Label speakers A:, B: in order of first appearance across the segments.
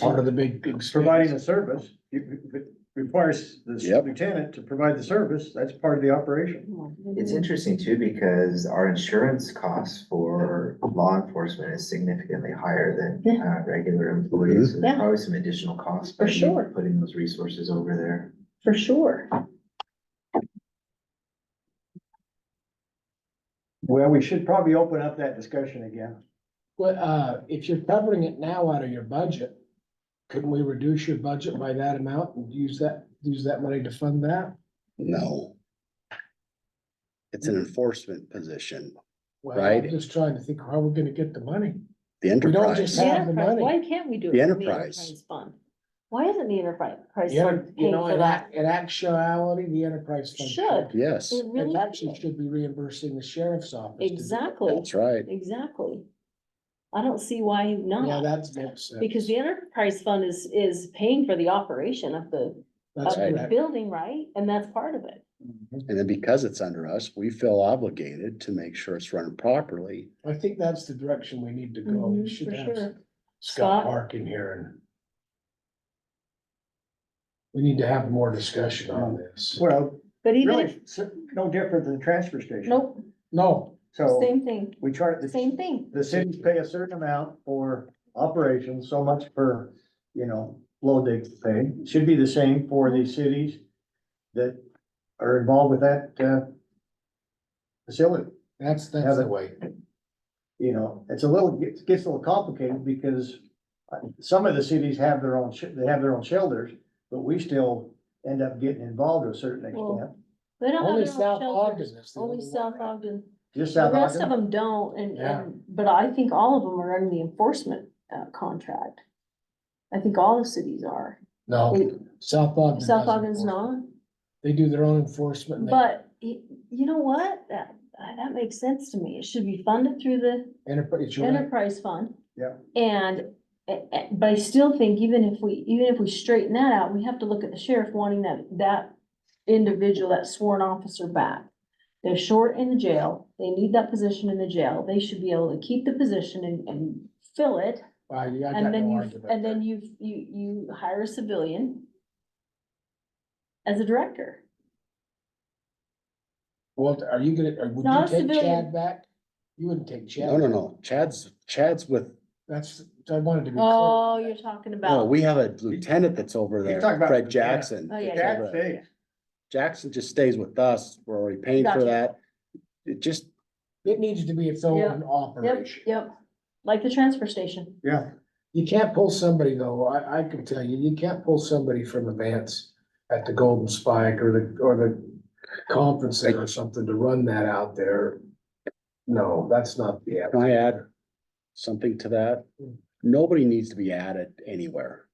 A: part of the big. expense.
B: providing the service, it it requires the
C: Yep.
B: lieutenant to provide the service, that's part of the operation.
D: Mm-hmm.
E: It's interesting too, because our insurance costs for law enforcement is significantly higher than, uh, regular employees. So
D: Mm-hmm. Yeah.
E: There's probably some additional costs.
D: For
E: by
D: sure.
E: Putting those resources over there.
D: for sure.
B: Well, we should probably open up that discussion again.
A: Well, uh, if you're covering it now out of your budget, couldn't we reduce your budget by that amount and use that, use that money to fund that?
C: No. It's an enforcement position,
A: Well, I'm
C: Right.
A: Just trying to think, how we're gonna get the money?
C: the
A: don't just
C: enterprise.
A: have-
D: The
A: the
D: enterprise,
A: money.
D: why can't we do it?
C: The
D: from
C: enterprise.
D: Fund. Why isn't the enterprise price
A: Yeah,
D: fund
A: you
D: paying
A: know,
D: for
A: in
D: that?
A: act, in actuality, the enterprise fund.
D: Should.
C: Yes,
D: It
A: It
D: really
A: actually
D: should.
A: should be reimbursing the sheriff's office. to do it.
D: Exactly,
C: that's right.
D: exactly. I don't see why
A: Yeah,
D: not,
A: that's makes sense.
D: because the enterprise fund is, is paying for the operation of the,
A: That's
D: of the
A: correct.
D: building, right? And that's part of it.
C: And then because it's under us, we feel obligated to make sure it's run properly.
A: I think that's the direction we need to go.
D: Mhm,
A: We should
D: for
A: have
D: sure.
A: Scott
D: Scott?
A: Park in here and we need to have more discussion on this.
B: Well,
D: But even if,
B: really, s- no different than the transfer station.
D: nope,
A: No,
B: So
D: same thing,
B: we chart, the,
D: same thing.
B: the cities pay a certain amount for operations, so much per, you know, low dig pay. Should be the same for the cities that are involved with that, uh, facility.
A: that's,
B: Yeah,
A: that's the
B: but-
A: way.
B: you know, it's a little, gets, gets a little complicated because uh, some of the cities have their own, sh- they have their own shelters, but we still end up getting involved to a certain extent.
D: Well, They don't have
A: Only
D: their own
A: South
D: shelters,
A: Ogden is the
D: only South Ogden.
B: Just
D: The
B: South
D: rest of
B: Ogden,
D: them don't, and,
A: Yeah.
D: and, but I think all of them are under the enforcement, uh, contract. I think all the cities are.
A: No, South Ogden.
D: South
A: doesn't
D: Ogden's
A: enforce it.
D: not,
A: They do their own enforcement. and they-
D: but you, you know what? That, uh, that makes sense to me. It should be funded through the
A: Enterprise, you're right.
D: enterprise fund.
B: Yeah.
D: And, a- a- but I still think even if we, even if we straighten that out, we have to look at the sheriff wanting that, that individual, that sworn officer back. They're short in the jail. They need that position in the jail. They should be able to keep the position and, and fill it.
A: Wow, you- I got
D: And then
A: no
D: you,
A: argument
D: and
A: there.
D: then you, you, you hire a civilian as a director.
A: Well, are you gonna, or would
D: Not
A: you
D: a
A: take
D: civilian.
A: Chad back? You wouldn't take Chad.
C: No, no,
A: back.
C: no. Chad's, Chad's with, oh,
A: That's, I wanted to be clear.
D: Oh, you're talking
C: no,
D: about.
C: we have a lieutenant that's over there,
B: talking about-
C: Fred Jackson.
D: Oh, yeah,
C: that's
D: yeah,
C: over
B: Jack
C: there.
B: stays.
C: Jackson just stays with us. We're already paying for
D: Gotcha.
C: that. It just,
A: It needs to be its own
D: Yeah. Yep,
A: operation.
D: yep, like the transfer station.
B: yeah,
A: You can't pull somebody though, I, I can tell you, you can't pull somebody from Advance at the Golden Spike or the, or the conference center or something to run that out there. No, that's not the.
C: can I add something to that? Nobody needs to be added anywhere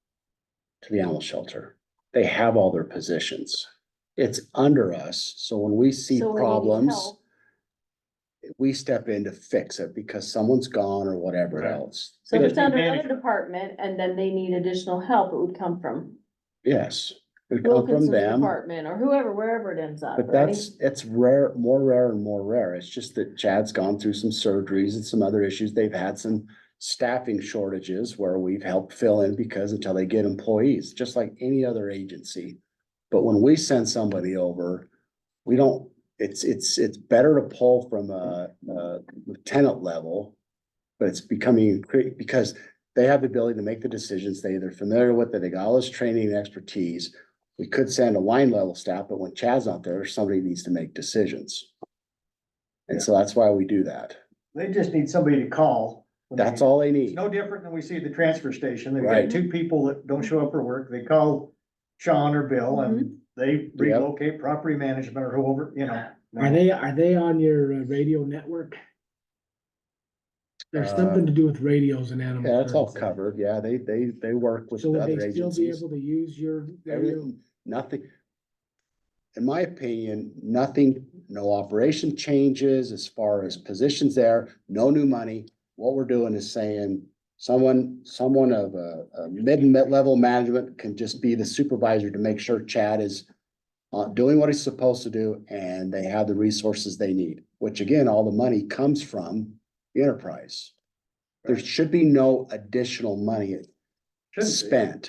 C: to the animal shelter. They have all their positions. It's under us, so when we see
D: So when you need
C: problems,
D: help,
C: we step in to fix it because someone's gone or whatever
B: Right.
C: else.
D: So if it's
C: It-
D: under another
B: management.
D: department and then they need additional help, it would come from
C: Yes, it come from
D: Wilkinson's
C: them,
D: department or whoever, wherever it ends up,
C: but
D: right?
C: that's, it's rare, more rare and more rare. It's just that Chad's gone through some surgeries and some other issues. They've had some staffing shortages where we've helped fill in because until they get employees, just like any other agency. But when we send somebody over, we don't, it's, it's, it's better to pull from a, a lieutenant level. But it's becoming, cre- because they have the ability to make the decisions. They, they're familiar with it. They got all this training and expertise. We could send a line level staff, but when Chad's not there, somebody needs to make decisions. And so that's why we do that.
B: they just need somebody to call. when
C: That's
B: they-
C: all they
B: It's
C: need.
B: no different than we see at the transfer station, they've got
C: Right.
B: two people that don't show up for work, they call Sean or Bill
D: Mm-hmm.
B: and they relocate property management or whoever, you know.
F: Are they, are they on your uh, radio network? There's
C: Uh,
F: something to do with radios and animals.
C: Yeah, that's all covered. Yeah, they, they, they work with
F: So would
C: other
F: they still be
C: agencies.
F: able to use your, their-
C: Everything, nothing. In my opinion, nothing, no operation changes as far as positions there, no new money. What we're doing is saying someone, someone of a, a mid and mid-level management can just be the supervisor to make sure Chad is uh, doing what he's supposed to do and they have the resources they need, which again, all the money comes from the enterprise. There should be no additional money.
B: Shouldn't be.
C: spent.